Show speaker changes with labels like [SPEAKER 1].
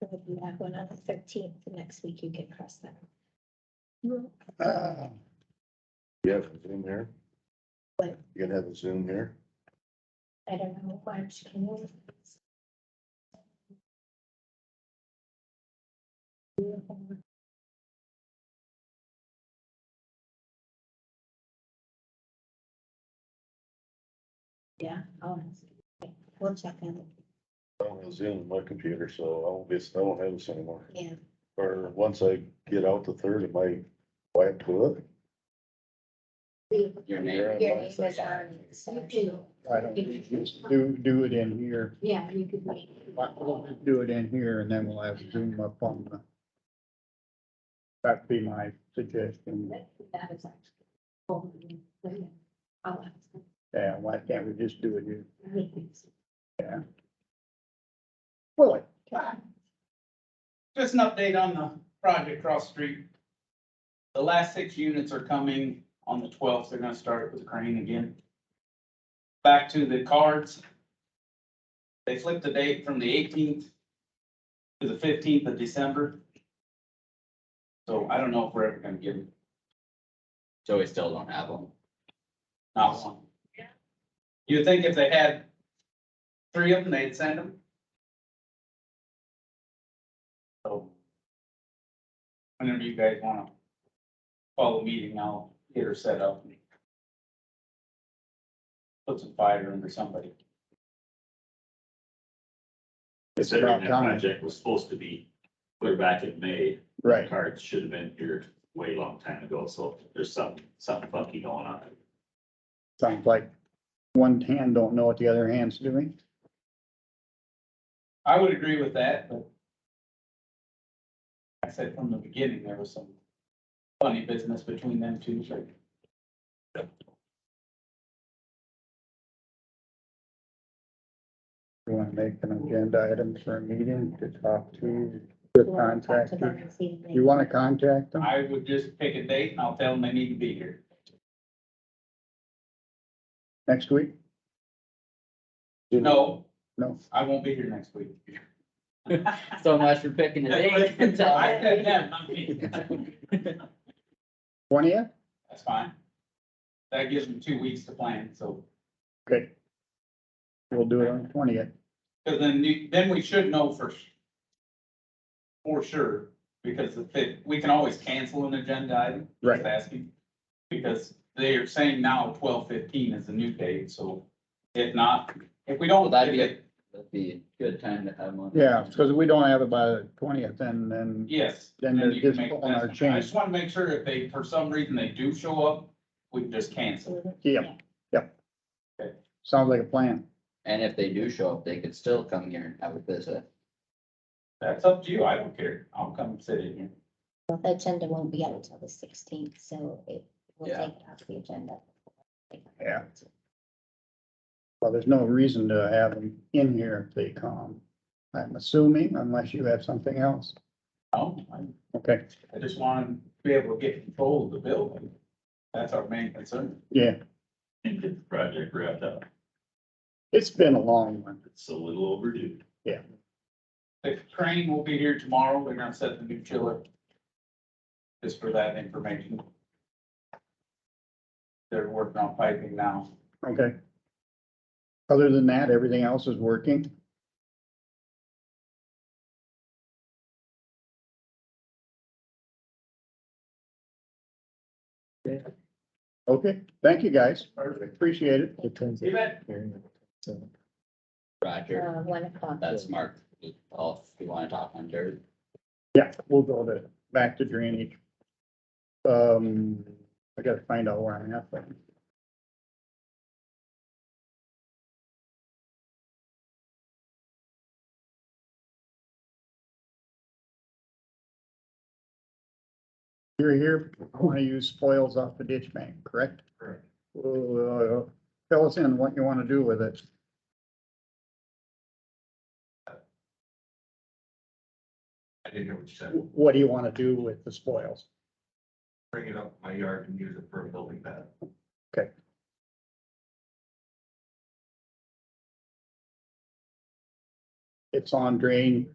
[SPEAKER 1] So if you have one on the thirteenth, next week you can cross that.
[SPEAKER 2] Ah. You have a Zoom here?
[SPEAKER 1] What?
[SPEAKER 2] You gonna have a Zoom here?
[SPEAKER 1] I don't know, March, can you? Yeah, I'll, ask. we'll check in,
[SPEAKER 2] I don't have Zoom on my computer, so I won't be, I won't have this anymore.
[SPEAKER 1] yeah,
[SPEAKER 2] Or once I get out the third, it might wipe to it.
[SPEAKER 1] we,
[SPEAKER 3] Your
[SPEAKER 2] Yeah.
[SPEAKER 3] name.
[SPEAKER 1] your name is on. so-
[SPEAKER 4] I don't, do, do it in here,
[SPEAKER 1] Yeah, you could wait.
[SPEAKER 4] do it in here and then we'll have Zoom up on the. That'd be my suggestion.
[SPEAKER 1] That is actually. I'll ask.
[SPEAKER 4] Yeah, why can't we just do it here?
[SPEAKER 2] Really?
[SPEAKER 3] Just an update on the project cross street. The last six units are coming on the twelfth. They're gonna start it with a crane again. Back to the cards. They flipped the date from the eighteenth to the fifteenth of December. So I don't know if we're ever gonna get them.
[SPEAKER 5] So we still don't have them.
[SPEAKER 3] Not one. You'd think if they had three of them, they'd send them. So. Whenever you guys wanna call a meeting, I'll get her set up. and Put some fire under somebody.
[SPEAKER 4] It's
[SPEAKER 6] Considering
[SPEAKER 4] about
[SPEAKER 6] that
[SPEAKER 4] time,
[SPEAKER 6] project was supposed to be put back in May, the
[SPEAKER 4] right,
[SPEAKER 6] cards should have been here way long time ago, so there's some, something funky going on.
[SPEAKER 4] sounds like one hand don't know what the other hand's doing.
[SPEAKER 3] I would agree with that, but. I said from the beginning, there was some funny business between them two, so.
[SPEAKER 4] You wanna make an agenda item for a meeting to talk to the
[SPEAKER 1] You wanna talk to them
[SPEAKER 4] contractor?
[SPEAKER 1] and see if they-
[SPEAKER 4] You wanna contact them?
[SPEAKER 3] I would just pick a date and I'll tell them they need to be here.
[SPEAKER 4] Next week?
[SPEAKER 3] No.
[SPEAKER 4] No.
[SPEAKER 3] I won't be here next week.
[SPEAKER 5] So much for picking a date. and
[SPEAKER 3] I
[SPEAKER 5] telling
[SPEAKER 3] said
[SPEAKER 5] me.
[SPEAKER 3] them, not me.
[SPEAKER 4] Twentieth?
[SPEAKER 3] That's fine. That gives them two weeks to plan, so,
[SPEAKER 4] Good. We'll do it on twentieth.
[SPEAKER 3] because then you, then we should know for s- for sure, because if it, we can always cancel an agenda item.
[SPEAKER 4] Right.
[SPEAKER 3] Just asking, because they are saying now twelve fifteen is the new date, so if not, if we
[SPEAKER 5] Well,
[SPEAKER 3] don't,
[SPEAKER 5] that'd
[SPEAKER 3] if
[SPEAKER 5] be
[SPEAKER 3] it,
[SPEAKER 5] a- That'd be a good time to have one.
[SPEAKER 4] Yeah, because we don't have it by the twentieth and then
[SPEAKER 3] yes.
[SPEAKER 4] Then they're
[SPEAKER 3] you can
[SPEAKER 4] just
[SPEAKER 3] make
[SPEAKER 4] pulling
[SPEAKER 3] that-
[SPEAKER 4] our chain.
[SPEAKER 3] I just want to make sure if they, for some reason, they do show up, we can just cancel.
[SPEAKER 4] Yep, yep. Sounds like a plan.
[SPEAKER 5] And if they do show up, they could still come here and have a visit.
[SPEAKER 3] That's up to you. I don't care. I'll come sit in here.
[SPEAKER 1] Well, The agenda won't be out until the sixteenth, so it will
[SPEAKER 5] Yeah.
[SPEAKER 1] take it off the agenda.
[SPEAKER 4] Yeah. Well, there's no reason to have them in here if they come. I'm assuming unless you have something else.
[SPEAKER 3] No, I
[SPEAKER 4] Okay,
[SPEAKER 3] I just want to be able to get control of the building. That's our main concern.
[SPEAKER 4] yeah,
[SPEAKER 6] And get the project wrapped up,
[SPEAKER 4] it's been a long one.
[SPEAKER 6] it's a little overdue.
[SPEAKER 3] The crane will be here tomorrow. They're gonna set the new chiller. Just for that information. They're working on piping now.
[SPEAKER 4] Okay. Other than that, everything else is working. Okay, thank you, guys.
[SPEAKER 3] Perfect.
[SPEAKER 4] Appreciate it.
[SPEAKER 3] See that?
[SPEAKER 5] Roger,
[SPEAKER 1] Uh, one o'clock.
[SPEAKER 5] that's Mark. Oh, if you wanna talk on dirt.
[SPEAKER 4] Yeah, we'll go to, back to drainage. Um, I gotta find out where I'm at, but. You're here, I wanna use spoils off the ditch bank, correct?
[SPEAKER 6] Correct.
[SPEAKER 4] Well, uh, Fill us in what you wanna do with it.
[SPEAKER 7] I didn't hear what you said.
[SPEAKER 4] What do you wanna do with the spoils?
[SPEAKER 7] Bring it up my yard and use it for a building pad.
[SPEAKER 4] It's on drain